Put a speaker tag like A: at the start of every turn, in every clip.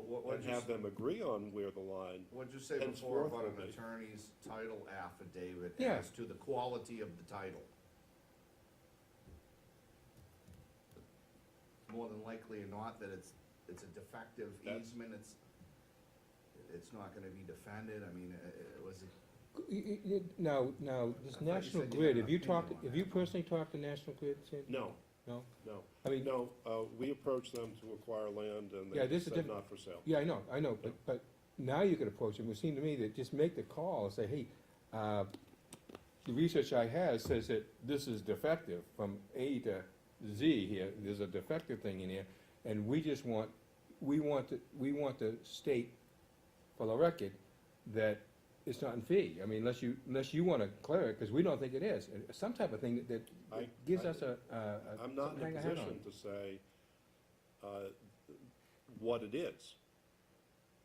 A: and have them agree on where the line,
B: What'd you say
A: That's
B: before
A: worth
B: about
A: it,
B: an
A: mate.
B: attorney's title affidavit
C: Yeah.
B: as to the quality of the title? More than likely or not that it's, it's a defective
A: That's-
B: easement, it's, it's not gonna be defended, I mean, uh, it was, it-
C: Y- y- y- Now, now,
B: I
C: this
B: thought you
C: National
B: said you
C: Grid,
B: had
C: have
B: an
C: you
B: opinion
C: talked,
B: on
C: have you
B: that.
C: personally talked to National Grid, Sandy?
A: no,
C: No?
A: no.
C: I mean,
A: No, uh, we approached them to acquire land and
C: Yeah,
A: they
C: this is
A: said
C: diff-
A: not for sale.
C: yeah, I know, I know, but,
A: No.
C: but now you could approach them, it would seem to me that just make the call and say, hey, uh, the research I had says that this is defective from A to Z here, there's a defective thing in here, and we just want, we want to, we want to state for the record that it's not in fee, I mean, unless you, unless you wanna clear it, cause we don't think it is, And some type of thing that, that
A: I-
C: gives
A: I-
C: us a, a. a-
A: I'm not in a
C: something to hang our hat
A: position to say, uh, what it is.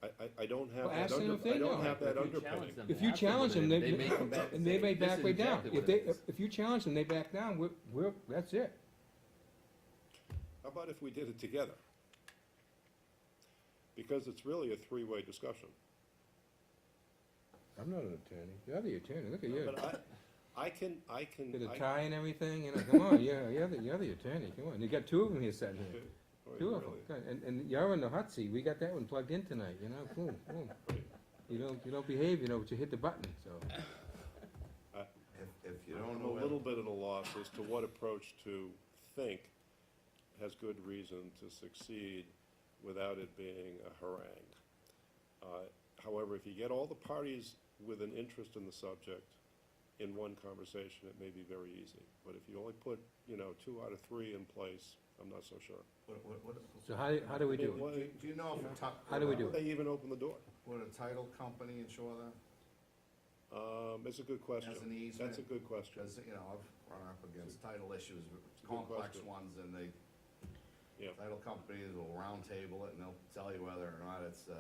A: I, I, I don't have
C: Well,
A: that
C: ask them
A: under,
C: if they
A: I
C: know.
A: don't have
D: If
A: that
D: you
A: underpinning.
D: challenge them
C: If you
D: afterward,
C: challenge them, they,
D: may come back
C: and they
D: say,
C: may
D: "This
C: back
D: is
C: way down.
D: exactly
C: If
D: what
C: they,
D: it is."
C: if you challenge them, they back down, we're, we're, that's it.
A: How about if we did it together? Because it's really a three-way discussion.
C: I'm not an attorney. You're the attorney, look at you.
A: But I, I can, I can,
C: Get a
A: I-
C: tie and everything, you know, come on, you're, you're the, you're the attorney, come on. You got two of them here sitting here,
A: all right,
C: two of them.
A: oh, really.
C: Good. And, and you're in the hot seat. We got that one plugged in tonight, you know, boom, boom. You don't, you don't behave, you know, but you hit the button, so.
B: if, if you don't
A: I'm
B: know.
A: a
B: whether-
A: little bit at a loss as to what approach to think has good reason to succeed without it being a harangue. Uh, However, if you get all the parties with an interest in the subject in one conversation, it may be very easy. But if you only put, you know, two out of three in place, I'm not so sure.
B: What, what, what?
C: So how, how do we
A: I mean,
C: do
A: what-
B: Do do you know if a ti-
C: How do we do it?
A: They even open the door.
B: Would a title company insure that?
A: Um, it's a good question.
B: As an easement?
A: That's a good question,
B: Because, you know, I've run up against title issues,
A: good
B: complex
A: question.
B: ones, and they,
A: yeah.
B: title companies will roundtable it, and they'll tell you whether or not it's, uh,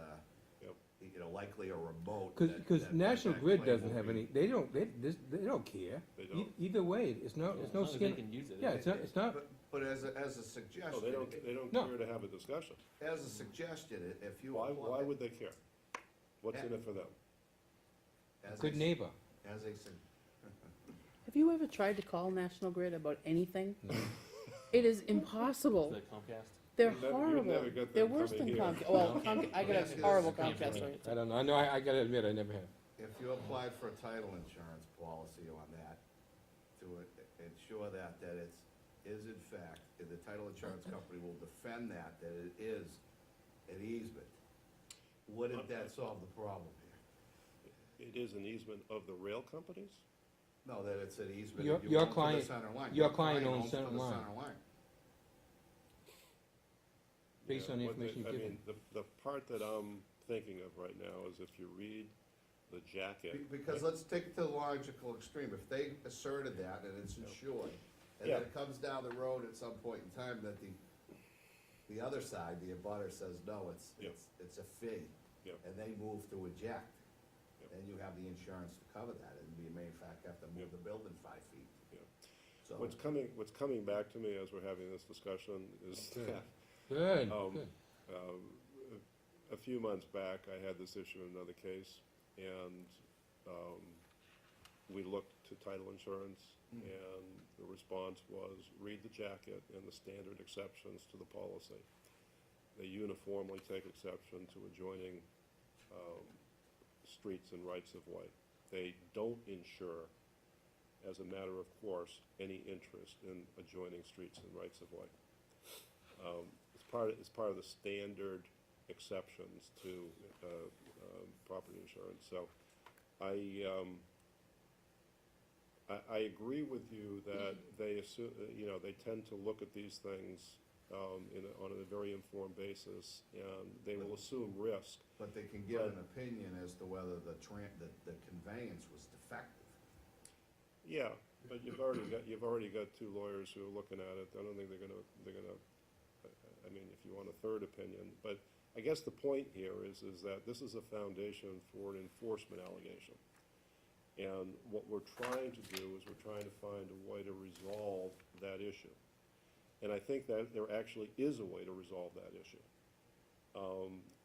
A: Yep.
B: you know, likely a remote.
C: it? Cause,
B: that-
C: 'cause
B: that-
C: National
B: that
C: Grid
B: claim
C: doesn't
B: will
C: have
B: be-
C: any, they don't, they, this- they don't care.
A: They
C: E-
A: don't.
C: Either way, it's no,
D: As
C: it's no
D: long as they
C: skin,
D: can use it.
C: yeah, it's not, it's not,
B: But- But as a, as a
A: No, they
B: suggestion,
A: don't, they don't
C: No.
A: care to have a discussion.
B: as a suggestion, i- if you.
A: Why,
B: apply-
A: why would they care? What's in it for them?
B: as a
C: good
B: s-
C: neighbor.
B: As a, sug-
E: Have you ever tried to call National Grid about anything? It is
D: Is
E: impossible.
D: that Comcast?
E: They're
A: You'd never- you'd
E: horrible.
A: never get
E: They're
A: them
E: worse than
A: coming here.
E: Comcast. Well, Comcast, I got
B: Yeah.
E: a horrible
D: Yeah.
E: Comcast rate.
C: I don't know, I know, I, I gotta admit, I never have.
B: if you applied for a title insurance policy on that, to i- ensure that, that it's, is in fact, and the title insurance company will defend that, that it is an easement, wouldn't that solve the problem here?
A: It is an easement of the rail companies?
B: No, that it's an easement.
C: Your-
B: that you
C: your
B: own to the
C: client-
B: center line.
C: your client owns
B: to
C: center
B: the
C: line.
B: center line.
C: Based
A: Yeah,
C: on the
A: what
C: information
A: I
C: you've
A: mean, The, the part that I'm thinking of right now is if you read the jacket.
B: Be- Because let's take it to the logical extreme, if they asserted that and it's insured, and then
A: Yeah.
B: it comes down the road at some point in time that the, the other side, the abutter says, no, it's,
A: Yeah.
B: it's, it's a fee.
A: Yeah.
B: And they move to eject,
A: Yeah.
B: then you have the insurance to cover that, and you may in fact have to move the building five feet,
A: yeah.
B: so.
A: What's coming, what's coming back to me as we're having this discussion is
C: Okay.
A: that
C: Good,
A: Um,
C: good.
A: a few months back, I had this issue in another case, and, um, we looked to title insurance, and the response was, read the jacket and the standard exceptions to the policy. They uniformly take exception to adjoining, um, streets and rights of way. They don't insure, as a matter of course, any interest in adjoining streets and rights of way. Um, It's part, it's part of the standard exceptions to uh, um, property insurance, so I, um, I, I agree with you that they assume, you know, they tend to look at these things um, in, a- on a very informed basis, and they will assume risk.
B: But they can give an
A: But-
B: opinion as to whether the tran, the, the conveyance was defective.
A: Yeah, but you've already got, you've already got two lawyers who are looking at it, I don't think they're gonna, they're gonna, I- I mean, if you want a third opinion, but I guess the point here is, is that this is a foundation for an enforcement allegation. And what we're trying to do is we're trying to find a way to resolve that issue. And I think that there actually is a way to resolve that issue. Um,